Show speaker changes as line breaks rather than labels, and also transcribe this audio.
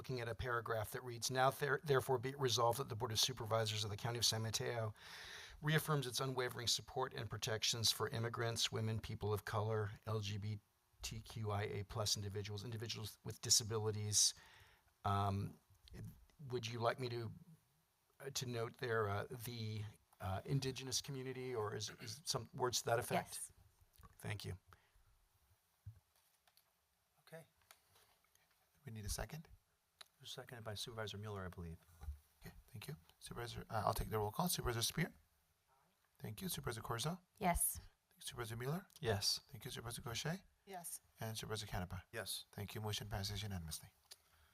looking at a paragraph that reads, Now there- therefore be it resolved that the Board of Supervisors of the County of San Mateo reaffirms its unwavering support and protections for immigrants, women, people of color, LGBTQIA plus individuals, individuals with disabilities. Um, would you like me to uh, to note there uh, the uh, indigenous community, or is, is some words to that effect?
Yes.
Thank you.
Okay. We need a second?
Seconded by Supervisor Mueller, I believe.
Okay, thank you. Supervisor, uh, I'll take the roll call. Supervisor Spear? Thank you. Supervisor Corzo?
Yes.
Supervisor Mueller?
Yes.
Thank you. Supervisor Gaucher?
Yes.
And Supervisor Canepa?
Yes.
Thank you. Motion passes unanimously.